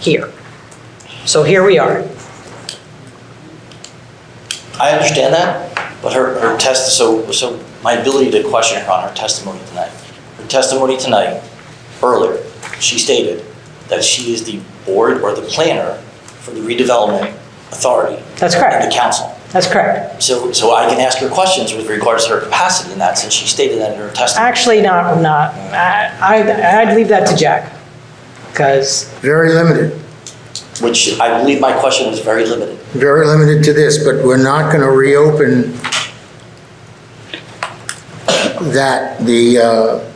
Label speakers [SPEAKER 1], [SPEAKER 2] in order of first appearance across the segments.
[SPEAKER 1] here. So here we are.
[SPEAKER 2] I understand that, but her, her test, so, so my ability to question her on her testimony tonight. Her testimony tonight, earlier, she stated that she is the board or the planner for the redevelopment authority.
[SPEAKER 1] That's correct.
[SPEAKER 2] And the council.
[SPEAKER 1] That's correct.
[SPEAKER 2] So, so I can ask her questions with regards to her capacity in that, since she stated that in her testimony.
[SPEAKER 1] Actually, not, not, I, I'd- I'd leave that to Jack, because,
[SPEAKER 3] Very limited,
[SPEAKER 2] Which I believe my question was very limited.
[SPEAKER 3] very limited to this, but we're not going to reopen that, the, uh,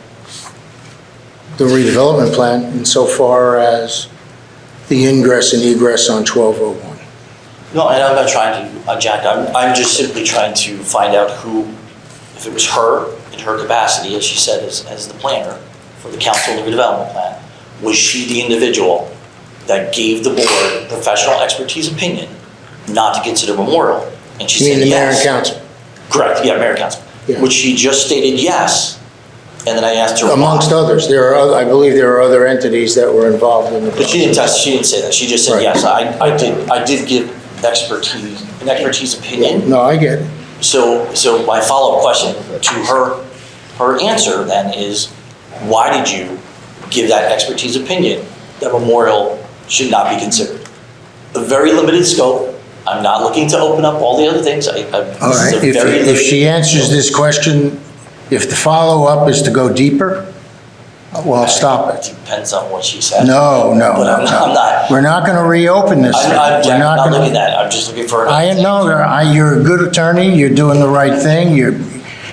[SPEAKER 3] the redevelopment plan insofar as the ingress and egress on 1201.
[SPEAKER 2] No, and I'm not trying to, uh, Jack, I'm, I'm just simply trying to find out who, if it was her, in her capacity, as she said, as, as the planner for the council and the redevelopment plan, was she the individual that gave the board professional expertise opinion not to consider memorial? And she
[SPEAKER 3] You mean
[SPEAKER 2] said
[SPEAKER 3] the mayor and
[SPEAKER 2] yes.
[SPEAKER 3] council?
[SPEAKER 2] Correct, yeah, mayor and council,
[SPEAKER 3] Yeah.
[SPEAKER 2] which she just stated yes, and then I asked her why.
[SPEAKER 3] Amongst others, there are, oth- I believe there are other entities that were involved in the.
[SPEAKER 2] But she didn't test, she didn't say that, she just said
[SPEAKER 3] Right.
[SPEAKER 2] yes, I, I did, I did give expertise, an expertise opinion.
[SPEAKER 3] No, I get it.
[SPEAKER 2] So, so my follow-up question to her, her answer then is, why did you give that expertise opinion that memorial should not be considered? A very limited scope. I'm not looking to open up all the other things. I, I,
[SPEAKER 3] All
[SPEAKER 2] this
[SPEAKER 3] right,
[SPEAKER 2] is a
[SPEAKER 3] if,
[SPEAKER 2] very
[SPEAKER 3] if she
[SPEAKER 2] limited-
[SPEAKER 3] answers this question, if the follow-up is to go deeper, well, stop it.
[SPEAKER 2] Depends on what she said.
[SPEAKER 3] No, no,
[SPEAKER 2] But I'm
[SPEAKER 3] no,
[SPEAKER 2] not, I'm not,
[SPEAKER 3] We're not going to reopen this.
[SPEAKER 2] I'm,
[SPEAKER 3] thing.
[SPEAKER 2] I'm,
[SPEAKER 3] We're
[SPEAKER 2] Jack, I'm not
[SPEAKER 3] gonna-
[SPEAKER 2] looking at that. I'm just looking for. an-
[SPEAKER 3] I know, there- I, you're a good attorney, you're doing the right thing, you're,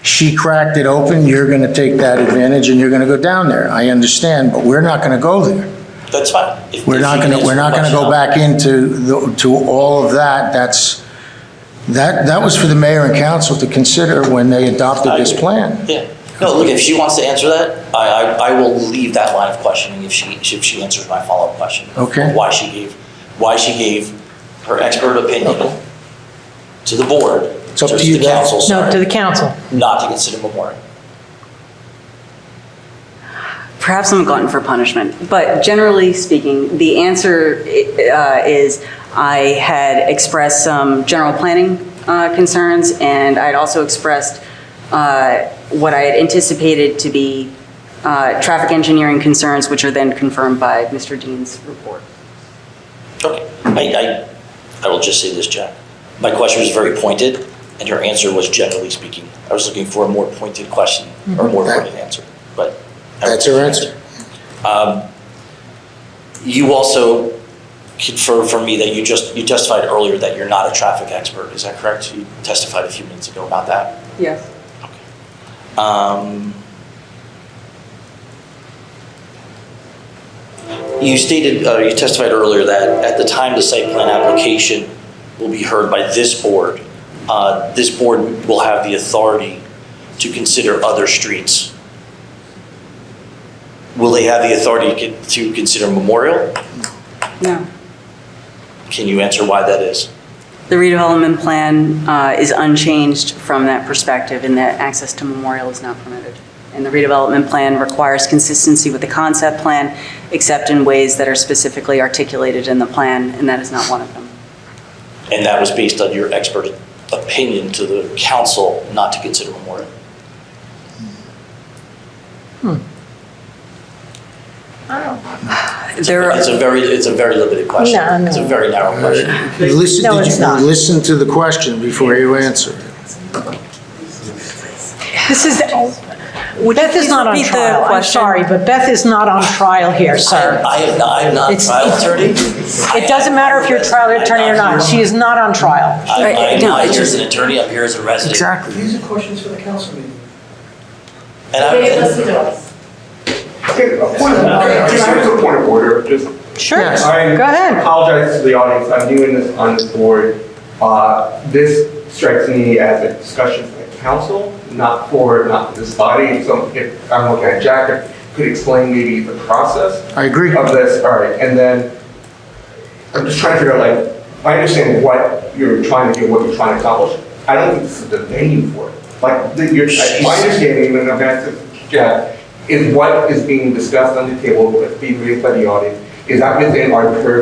[SPEAKER 3] she cracked it open, you're going to take that advantage and you're going to go down there. I understand, but we're not going to go there.
[SPEAKER 2] That's fine. If-
[SPEAKER 3] We're
[SPEAKER 2] if she
[SPEAKER 3] not
[SPEAKER 2] can
[SPEAKER 3] going to, we're
[SPEAKER 2] answer
[SPEAKER 3] not
[SPEAKER 2] the
[SPEAKER 3] going to go
[SPEAKER 2] question, I'll-
[SPEAKER 3] back into, the- to all of that. That's, that, that was for the mayor and council to consider when they adopted
[SPEAKER 2] I
[SPEAKER 3] this
[SPEAKER 2] agree.
[SPEAKER 3] plan.
[SPEAKER 2] Yeah. No, look, if she wants to answer that, I, I, I will leave that line of questioning if she, if she answers my follow-up question.
[SPEAKER 3] Okay.
[SPEAKER 2] Why she gave, why she gave her expert
[SPEAKER 3] Okay.
[SPEAKER 2] opinion to the board.
[SPEAKER 3] It's up
[SPEAKER 2] or
[SPEAKER 3] to you
[SPEAKER 2] the
[SPEAKER 3] guys.
[SPEAKER 2] council,
[SPEAKER 1] no, to
[SPEAKER 2] sorry,
[SPEAKER 1] the council.
[SPEAKER 2] not to consider memorial.
[SPEAKER 4] Perhaps I'm a glutton for punishment, but generally speaking, the answer uh, is I had expressed some general planning uh, concerns, and I'd also expressed uh, what I had anticipated to be uh, traffic engineering concerns, which are then confirmed by Mr. Dean's report.
[SPEAKER 2] Okay. I, I, I will just say this, Jack. My question was very pointed, and her answer was generally speaking. I was looking for a more pointed question or a more
[SPEAKER 3] Mm-hmm. That-
[SPEAKER 2] pointed answer, but.
[SPEAKER 3] That's her answer.
[SPEAKER 2] Um, You also confirmed for me that you just, you testified earlier that you're not a traffic expert, is that correct? You testified a few minutes ago about that.
[SPEAKER 4] Yes.
[SPEAKER 2] Um, You stated, uh, you testified earlier that at the time the site plan application will be heard by this board, uh, this board will have the authority to consider other streets. Will they have the authority to con- to consider Memorial?
[SPEAKER 4] No.
[SPEAKER 2] Can you answer why that is?
[SPEAKER 4] The redevelopment plan uh, is unchanged from that perspective in that access to Memorial is not permitted. And the redevelopment plan requires consistency with the concept plan, except in ways that are specifically articulated in the plan, and that is not one of them.
[SPEAKER 2] And that was based on your expert opinion to the council not to consider Memorial.
[SPEAKER 4] There
[SPEAKER 2] It's
[SPEAKER 4] are,
[SPEAKER 2] a very, it's a very limited question.
[SPEAKER 1] No, no.
[SPEAKER 2] It's a very narrow question.
[SPEAKER 3] You Listen,
[SPEAKER 1] No,
[SPEAKER 3] did
[SPEAKER 1] it's
[SPEAKER 3] you
[SPEAKER 1] not.
[SPEAKER 3] listen to the question before you answer it?
[SPEAKER 1] This is, Beth is
[SPEAKER 4] please
[SPEAKER 1] not on
[SPEAKER 4] repeat the
[SPEAKER 1] trial. I'm
[SPEAKER 4] question?
[SPEAKER 1] sorry, but Beth is not on trial here, sir.
[SPEAKER 2] I am not, I am not a
[SPEAKER 1] It's-
[SPEAKER 2] trial attorney.
[SPEAKER 1] It doesn't matter if you're a trial attorney or not, she is not on trial.
[SPEAKER 2] I'm
[SPEAKER 4] Right,
[SPEAKER 2] I'm
[SPEAKER 4] no,
[SPEAKER 2] not
[SPEAKER 4] it's
[SPEAKER 2] here as
[SPEAKER 4] just-
[SPEAKER 2] an attorney, I'm here as a resident.
[SPEAKER 5] These are questions for the council meeting.
[SPEAKER 2] And
[SPEAKER 6] They
[SPEAKER 2] I'm,
[SPEAKER 6] listen to us.
[SPEAKER 5] Okay, a point of order.
[SPEAKER 7] Can I have a point of order? Just-
[SPEAKER 1] Sure,
[SPEAKER 3] Yes.
[SPEAKER 1] go
[SPEAKER 7] I
[SPEAKER 1] ahead.
[SPEAKER 7] apologize to the audience, I'm doing this on this board. Uh, This strikes me as a discussion for the council, not for, not for this body. So if I'm looking at Jack, if you could explain maybe the process
[SPEAKER 3] I agree.
[SPEAKER 7] of this, all right, and then I'm just trying to figure out, like, I understand what you're trying to do, what you're trying to accomplish. I don't think this is the venue for it. Like, the- your, my understanding, and I'm asking Jack, is what is being discussed on the table, what's being raised by the audience, is that within our purview